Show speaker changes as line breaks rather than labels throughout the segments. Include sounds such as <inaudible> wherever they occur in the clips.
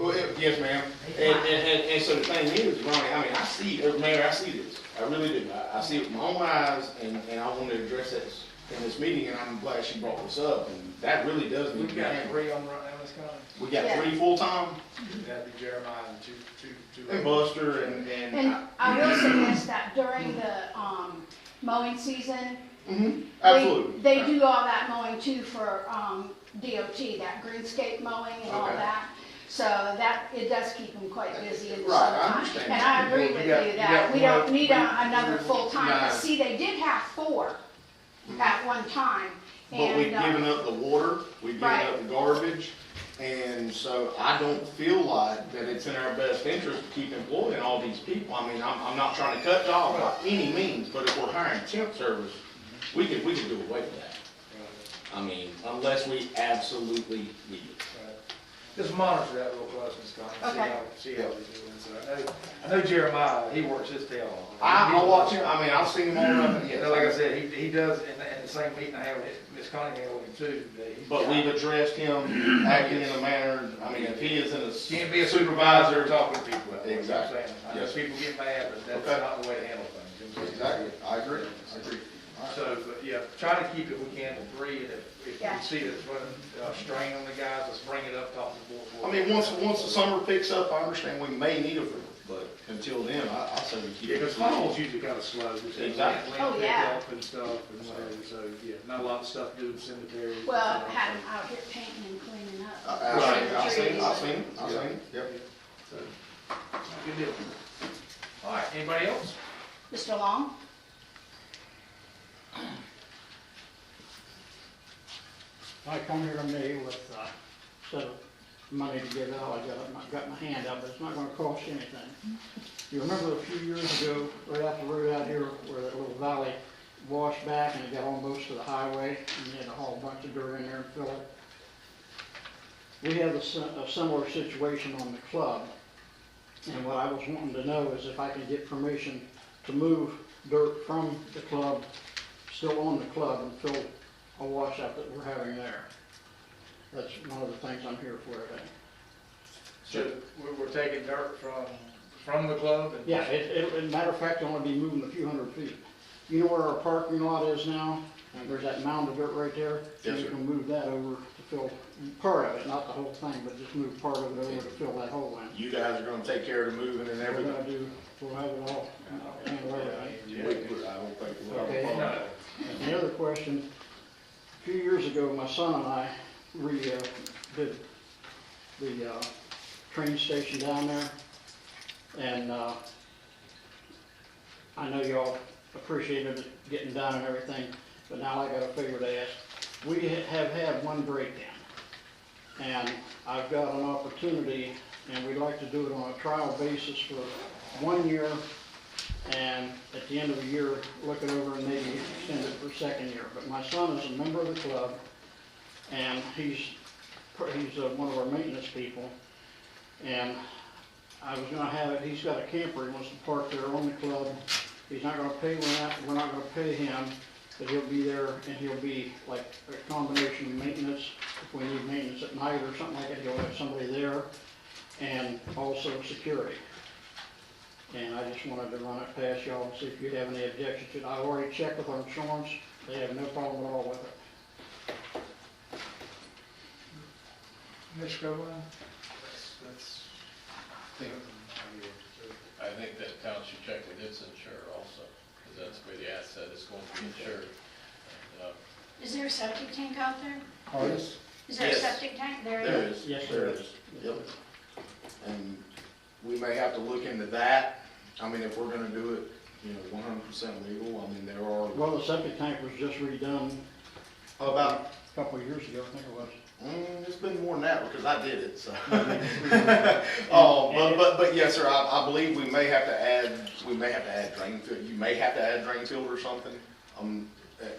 Yes, yes, ma'am.
They
And,
fine.
and, and, and so the thing is, Ronnie, I mean, I see, uh, Mayor, I see this. I really do. I, I see it with my own eyes and, and I want to address this in this meeting and I'm glad she brought this up and that really does need to
We've
be
got
handled.
three on right now, it's coming.
We got
Yeah.
three full-time,
That'd be Jeremiah and two, two, two.
and Buster and, and,
And
I-
I will suggest that during the um, mowing season,
Mhm,
they-
absolutely.
they do all that mowing too for um, DOT, that greenscape mowing and all
Okay.
that. So that, it does keep them quite busy in the
Right, I
summertime.
understand.
And I agree
We
with
got-
you
we
that
got
we don't
one-
need a- another full-time.
Nah.
But see, they did have four at one time.
But we've
and, uh,
given up the water, we've given
Right.
up the garbage, and so I don't feel like that it's in our best interest to keep employing all these people. I mean, I'm, I'm not trying to cut jobs by any means, but if we're hiring temp service, we could, we could do away with that.
uh,
I mean, unless we absolutely need it.
uh, Just monitor that real close, Ms. Connie, see
Okay.
how, see how he's doing, so I know, I know Jeremiah, he works his tail off.
I, I watch him, I mean, I've seen him on, up-
You
yeah,
know, like I
like I said,
said, he, he does, in, the- in the same meeting I have with Ms. Connie, he with him too, but he's.
but we've addressed him acting in a manner, I mean, if he is in a
Can't be a
supervisor,
supervisor talking to people. that's what I'm
Exactly.
saying. I know
Yes.
people get mad, but
Okay.
that's not the way to handle things.
Exactly, I agree, I agree. All right.
So, but yeah, try to keep it, we can, to three, and if, if
Yeah.
you see that it's running, uh, strain on the guys, let's bring it up, talk to the board.
I mean, once, once the summer picks up, I understand we may need a roof, but until then, I, I say we keep
Yeah,
it.
because funnels usually kind of slow, just have
Exactly.
land
Oh,
pick
yeah.
up and stuff, and whatever, so, yeah, not a lot of stuff to do in cemeteries. and
Well,
stuff,
had them
so.
out here painting and cleaning
I-
up.
I, I Uh, seen, I
Trees.
seen, I seen, yep.
Good deal. All right, anybody else?
Mr. Long?
I come here to me with uh, a set of money to give out, I got, my- got my hand up, but it's not gonna cost you anything. You remember a few years ago, right out the road out here where that little valley washed back and it got almost to the highway, and you had to haul a bunch of dirt in there and fill it? We have a si- a similar situation on the club, and what I was wanting to know is if I can get permission to move dirt from the club, still on the club, and fill a washout that we're having there. That's one of the things I'm here for today.
So, we're, we're taking dirt from, from the club and.
Yeah, it, it, as a matter of fact, I'm gonna be moving a few hundred feet. You know where our parking lot is now? There's that mound of dirt right there.
Yes,
You
sir.
can move that over to fill part of it, not the whole thing, but just move part of it over to fill that hole in.
You guys are gonna take care of the moving and
We're
everything.
gonna do, we'll have it all, handle everything.
We- we- I don't think we'll-
Okay.
No.
The other question, a few years ago, my son and I re, uh, did the, uh, train station down there. And, uh, I know y'all appreciated it getting done and everything, but now I got a favor to ask. We ha- have had one breakdown. And I've got an opportunity, and we'd like to do it on a trial basis for one year and at the end of the year, look it over and maybe extend it for a second year. But my son is a member of the club, and he's, he's uh, one of our maintenance people. And I was gonna have it, he's got a camper, he wants to park there on the club. He's not gonna pay rent, we're not gonna pay him, but he'll be there and he'll be like a combination of maintenance. If we need maintenance at night or something like that, he'll have somebody there, and also security. And I just wanted to run it past y'all and see if you have any objections to it. I already checked with our insurance, they have no problem at all with it.
Mr. Copeland? That's,
I think that town should check with its insurer also, because that's where the asset is going to be insured. And, uh,
Is there a septic tank out there?
Yes,
Is there a
Yes.
septic tank? There
there
is.
is.
Yes,
There
sir.
is. Yep. And we may have to look into that. I mean, if we're gonna do it, you know, one hundred percent legal, I mean, there are
Well, the septic tank was just redone
about,
a couple of years ago, I think it was.
Mm, it's been more than that because I did it,
<laughs>
so. <laughs> Oh, but, but, but yes, sir, I, I believe we may have to add, we may have to add drain field, you may have to add drain field or something. Um,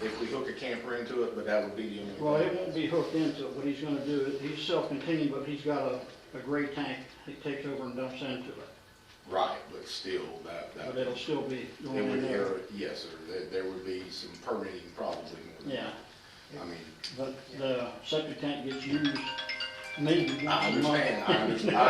if we hook a camper into it, but that would be the only.
Well, it won't be hooked into it, what he's gonna do, is he's self-contained, but he's got a, a gray tank, he takes over and dumps into it.
Right, but still, that, that.
But it'll still be going
It would,
in there.
yes, sir, there, there would be some permitting probably more than.
Yeah,
I mean,
but the septic tank gets used maybe once
I
a month.
understand, I understand, I